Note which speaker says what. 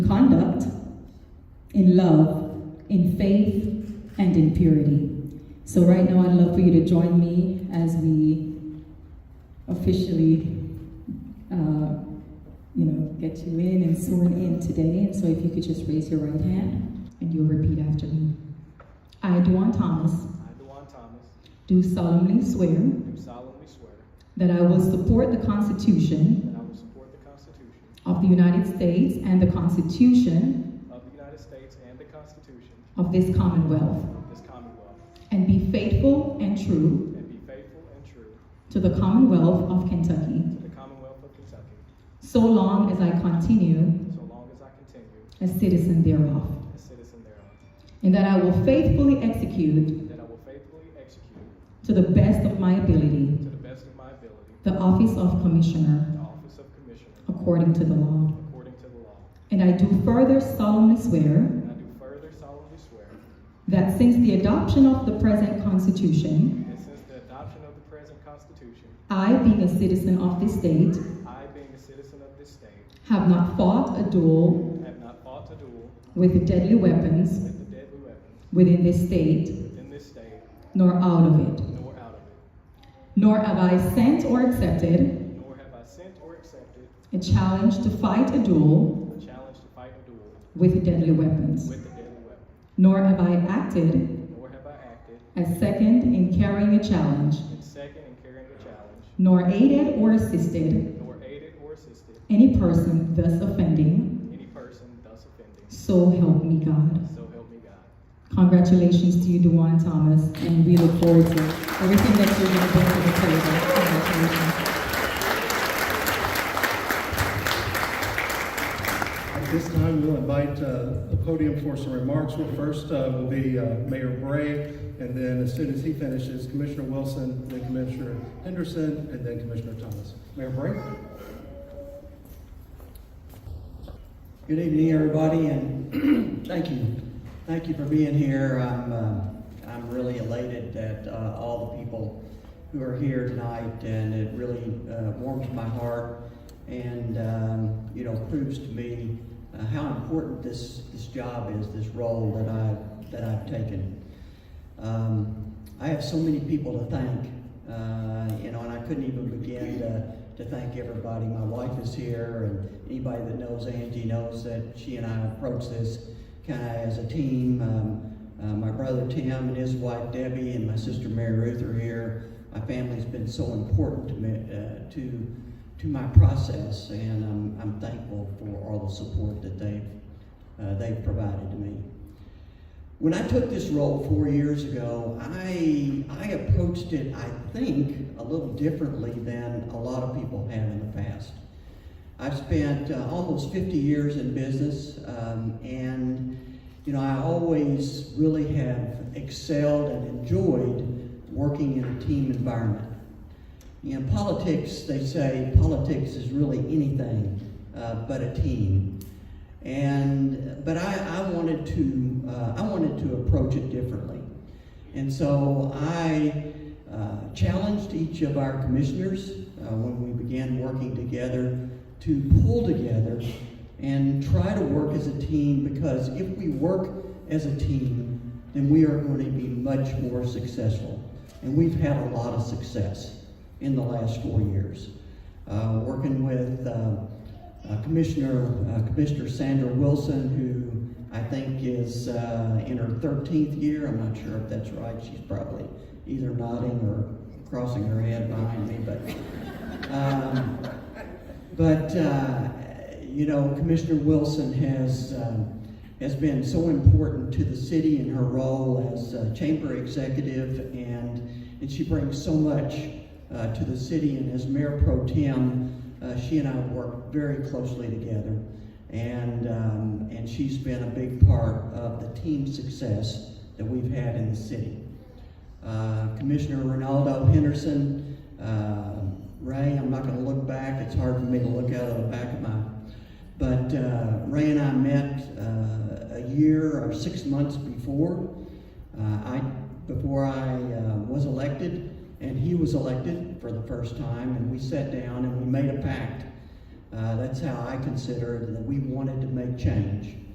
Speaker 1: conduct, in love, in faith, and in purity. So, right now, I'd love for you to join me as we officially, uh, you know, get you in and sworn in today. And so, if you could just raise your right hand and you'll repeat after me. I, Duan Thomas,
Speaker 2: I, Dewan Thomas,
Speaker 1: do solemnly swear
Speaker 2: do solemnly swear
Speaker 1: that I will support the Constitution
Speaker 2: that I will support the Constitution
Speaker 1: of the United States and the Constitution
Speaker 2: of the United States and the Constitution
Speaker 1: of this Commonwealth,
Speaker 2: of this Commonwealth,
Speaker 1: and be faithful and true
Speaker 2: and be faithful and true
Speaker 1: to the Commonwealth of Kentucky.
Speaker 2: to the Commonwealth of Kentucky,
Speaker 1: so long as I continue
Speaker 2: so long as I continue
Speaker 1: a citizen thereof,
Speaker 2: a citizen thereof,
Speaker 1: and that I will faithfully execute
Speaker 2: and that I will faithfully execute,
Speaker 1: to the best of my ability
Speaker 2: to the best of my ability,
Speaker 1: the office of Commissioner
Speaker 2: the office of Commissioner,
Speaker 1: according to the law.
Speaker 2: according to the law.
Speaker 1: And I do further solemnly swear
Speaker 2: And I do further solemnly swear
Speaker 1: that since the adoption of the present Constitution,
Speaker 2: that since the adoption of the present Constitution,
Speaker 1: I, being a citizen of this state,
Speaker 2: I, being a citizen of this state,
Speaker 1: have not fought a duel
Speaker 2: have not fought a duel
Speaker 1: with deadly weapons
Speaker 2: with the deadly weapons
Speaker 1: within this state,
Speaker 2: within this state,
Speaker 1: nor out of it,
Speaker 2: nor out of it.
Speaker 1: nor have I sent or accepted
Speaker 2: Nor have I sent or accepted
Speaker 1: a challenge to fight a duel
Speaker 2: a challenge to fight a duel
Speaker 1: with deadly weapons.
Speaker 2: with a deadly weapon,
Speaker 1: Nor have I acted
Speaker 2: nor have I acted
Speaker 1: as second in carrying a challenge,
Speaker 2: in second in carrying a challenge,
Speaker 1: nor aided or assisted
Speaker 2: nor aided or assisted
Speaker 1: any person thus offending.
Speaker 2: any person thus offending.
Speaker 1: So help me God.
Speaker 2: So help me God.
Speaker 1: Congratulations to you, Dewan Thomas, and we look forward to everything that you're going to bring to the table. Congratulations.
Speaker 3: At this time, we'll invite uh, the podium for some remarks. Well, first uh, will be uh, Mayor Bray, and then as soon as he finishes, Commissioner Wilson, then Commissioner Henderson, and then Commissioner Thomas. Mayor Bray?
Speaker 4: Good evening, everybody, and thank you. Thank you for being here. I'm, uh, I'm really elated that uh, all the people who are here tonight, and it really uh, warms my heart and, um, you know, proves to me uh, how important this, this job is, this role that I've, that I've taken. Um, I have so many people to thank, uh, you know, and I couldn't even begin to, to thank everybody. My wife is here, and anybody that knows Angie knows that she and I approach this kind of as a team. Um, uh, my brother Tim and his wife Debbie and my sister Mary Ruth are here. My family's been so important to me, uh, to to my process, and I'm, I'm thankful for all the support that they've uh, they've provided to me. When I took this role four years ago, I, I approached it, I think, a little differently than a lot of people have in the past. I've spent uh, almost 50 years in business, um, and you know, I always really have excelled and enjoyed working in a team environment. In politics, they say politics is really anything uh, but a team. And but I, I wanted to uh, I wanted to approach it differently, and so I uh, challenged each of our commissioners uh, when we began working together to pull together and try to work as a team because if we work as a team, then we are going to be much more successful. And we've had a lot of success in the last four years. Uh, working with uh, uh, Commissioner uh, Commissioner Sandra Wilson, who I think is uh, in her 13th year. I'm not sure if that's right. She's probably either nodding or crossing her head behind me, but. Um, but uh, you know, Commissioner Wilson has um, has been so important to the city in her role as uh, chamber executive, and and she brings so much uh, to the city. And as mayor pro tem, uh, she and I work very closely together, and um, and she's been a big part of the team success that we've had in the city. Uh, Commissioner Ronaldo Henderson, uh, Ray, I'm not going to look back. It's hard for me to look out of the back of my. But uh, Ray and I met uh, a year or six months before uh, I before I uh, was elected, and he was elected for the first time, and we sat down and we made a pact Uh, that's how I consider it, that we wanted to make change.